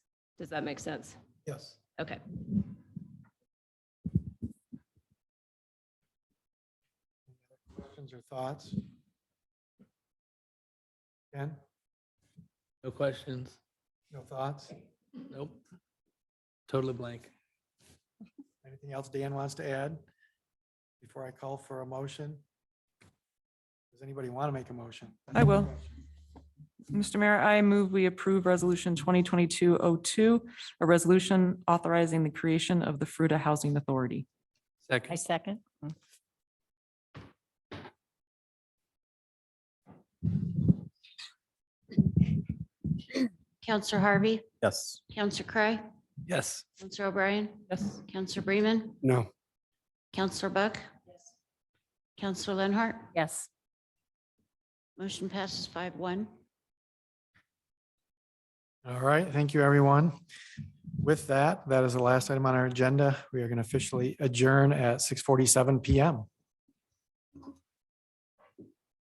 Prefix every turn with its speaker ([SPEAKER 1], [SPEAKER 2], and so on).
[SPEAKER 1] Does that make sense?
[SPEAKER 2] Yes.
[SPEAKER 1] Okay.
[SPEAKER 2] Questions or thoughts? Ken,
[SPEAKER 3] No questions.
[SPEAKER 2] no thoughts?
[SPEAKER 3] Nope. Totally blank.
[SPEAKER 2] Anything else Dan wants to add before I call for a motion? Does anybody want to make a motion?
[SPEAKER 4] I will. Mr. Mayor, I move we approve Resolution 2022-02, a resolution authorizing the creation of the Fruta Housing Authority.
[SPEAKER 3] Second.
[SPEAKER 5] second.
[SPEAKER 6] Counselor Harvey,
[SPEAKER 7] Yes.
[SPEAKER 6] Counselor Cry,
[SPEAKER 3] Yes.
[SPEAKER 6] Counselor O'Brien,
[SPEAKER 4] Yes.
[SPEAKER 6] Counselor Bremen,
[SPEAKER 2] No.
[SPEAKER 6] Counselor Buck. Counselor Lenhart,
[SPEAKER 5] Yes.
[SPEAKER 6] motion passes five one.
[SPEAKER 2] All right, thank you, everyone. With that, that is the last item on our agenda. We are going to officially adjourn at 6:47 PM.